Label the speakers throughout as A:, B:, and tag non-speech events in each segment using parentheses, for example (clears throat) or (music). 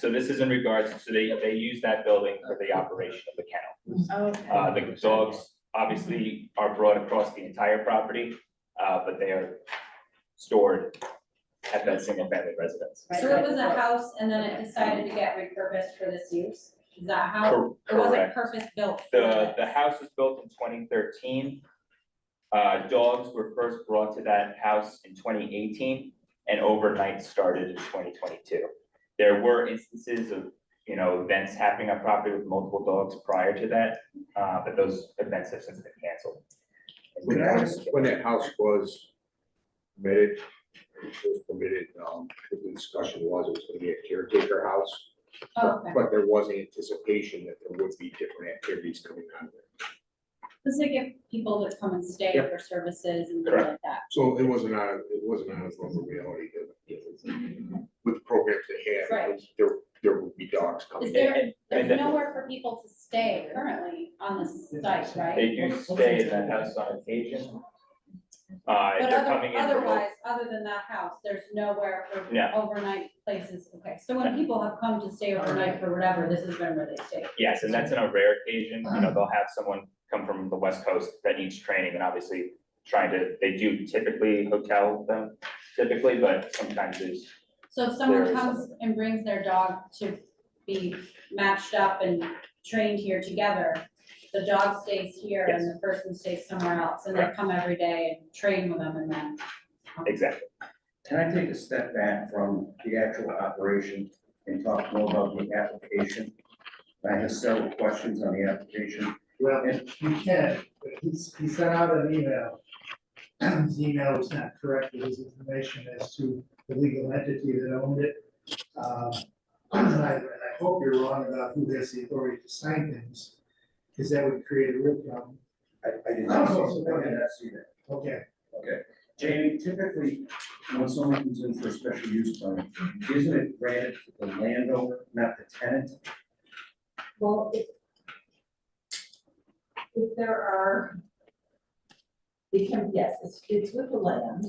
A: So this is in regards, so they, they use that building for the operation of the kennel. Uh,
B: Okay.
A: the dogs obviously are brought across the entire property, uh, but they are stored at that single family residence.
B: Right,
C: So it
B: right.
C: was a house and then it decided to get repurposed for this use? Is that how,
A: Cor-
C: it wasn't
A: Correct.
C: purpose built? for
A: The,
C: that?
A: the house was built in twenty thirteen. Uh, dogs were first brought to that house in twenty eighteen and overnight started in twenty twenty-two. There were instances of, you know, events happening on property with multiple dogs prior to that, uh, but those events have since been canceled.
D: When I asked when that house was permitted, it was permitted, um, the discussion was it was gonna be a caretaker house.
C: Oh, okay.
D: but- But there was anticipation that there would be different activities coming out of it.
C: This is give people that come and stay
D: Yep.
C: for services and things like that.
D: So it wasn't out, of it wasn't out of the realm of reality that with the programs they had,
C: Right.
D: there, there would be dogs coming
C: Is
D: in.
C: there, there's
A: and that-
C: nowhere for people to stay currently on this site, right?
A: They do stay in that house on occasion. Uh, if
C: But
A: they're
C: other-
A: coming in. for-
C: otherwise, other than that house, there's nowhere for
A: Yeah.
C: overnight places, okay, so when people have come to stay overnight for whatever, this has been where they stay.
A: Yes, and that's in a rare occasion, you know, they'll have someone come from the west coast that needs training and obviously trying to, they do typically hotel them typically, but sometimes there's.
C: So if someone
A: There is
C: comes
A: something.
C: and brings their dog to be matched up and trained here together, the dog stays here and the person stays somewhere else, and they
A: Correct.
C: come every day and train with them and then.
A: Exactly.
E: Can I take a step back from the actual operation and talk more about the application? I have several questions on the application.
F: Well, you can, but he's, he sent out an email. (clears throat) His email was not correct with his information as to the legal entity that owned it. Um, And I, and I hope you're wrong about who has the authority to sign things, because that would create a real problem.
E: I, I did not, see- I did not see that.
F: Okay,
E: Jamie, typically, when someone comes in for a special use permit, isn't it granted to the landowner, not the tenant?
G: Well, if. If there are. It can, yes, it's, it's with the land,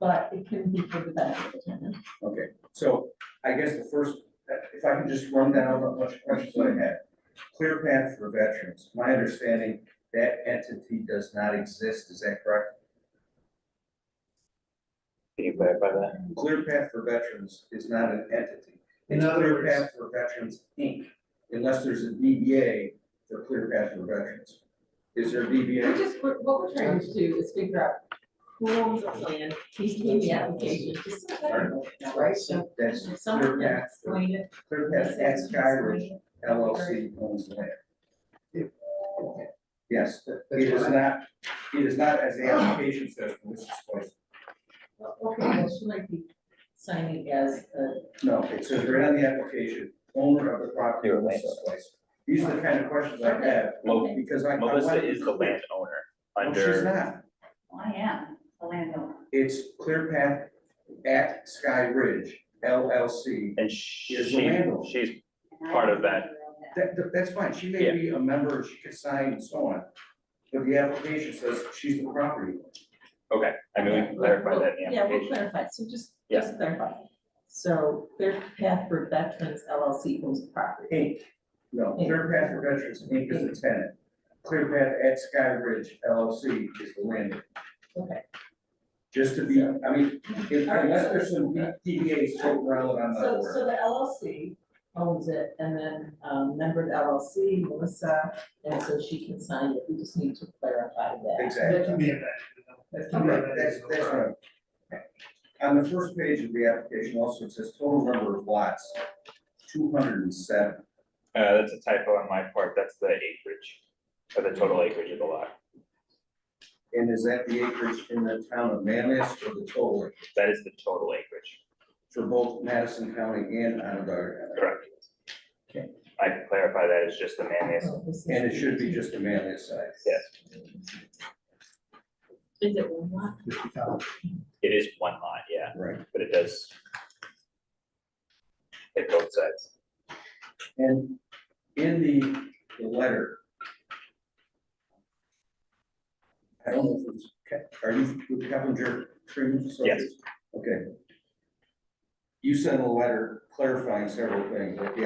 G: but it can be for the benefit of the tenant.
E: Okay, so I guess the first, if I can just run down a bunch of questions I had. Clear Path for Veterans, my understanding, that entity does not exist, is that correct?
A: Can you clarify that?
E: Clear Path for Veterans is not an entity. It's
F: In other
E: Clear
F: words-
E: Path for Veterans, Inc., unless there's a DBA for Clear Path for Veterans. Is there a
G: We're
E: DBA?
G: just, we're- what we're trying to do is figure out who owns the land, who's doing the application, just so that, right? So
E: That's
G: someone
E: Clear
G: can
E: Path,
G: explain it.
E: Clear Path at Skyridge LLC owns the land. Okay. Yes,
F: that-
E: it
F: that's
E: is
F: what I,
E: not, it is not as the application says, Mrs. Spicer.
G: Okay, well, she might be signing as a,
E: No, it says right on the application, owner of the property,
A: You're a
E: Mrs. Spicer. These are the kind of questions I have,
A: Mo-
E: because I. I
A: Melissa
E: wanna-
A: is the landowner
E: No, Oh, She's
A: under,
E: not.
B: I am a landowner.
E: It's Clear Path at Sky Ridge LLC.
A: and
E: is
A: she,
E: the landlord.
A: she's, Part of that.
E: That, that- that's fine, she may
A: Yeah.
E: be a member, she could sign and so on, but the application says she's the property. owner.
A: okay, I mean, we can clarify that in the
G: yeah, we'll
A: application.
G: clarify, so just, just clarify. So their path for veterans LLC owns the property.
E: Inc., no, Clear Path for Veterans Inc. is the tenant. Clear Path at Sky Ridge LLC is the landlord.
G: Okay.
E: Just to be, I mean, if- unless there's some DBA's floating around on that
G: So,
E: word.
G: so the LLC owns it, and then, um, member of the LLC, Melissa, and so she can sign it, we just need to clarify that.
F: that
E: Exactly.
F: can be a, that can be a.
E: Right, that's, that's what I'm- On the first page of the application also, it says total number of lots, two hundred and seven.
A: Uh, that's a typo on my part, that's the acreage, or the total acreage of the lot.
E: And is that the acreage in the town of Manlius or the total acreage
A: That is the total acreage,
E: for both Madison County and Onondaga? County?
A: correct?
E: Okay.
A: I can clarify that, it's just the manlius,
G: So this is-
E: And it should be just the Manlius side.
A: yes,
G: Is it one lot?
A: it is one lot, yeah.
E: Right.
A: but it does. Hit both sides.
E: And in the, the letter. I don't know if it's, Ke- are you with Keppinger Trim?
A: Yes.
E: Okay. you sent a letter clarifying several things, like the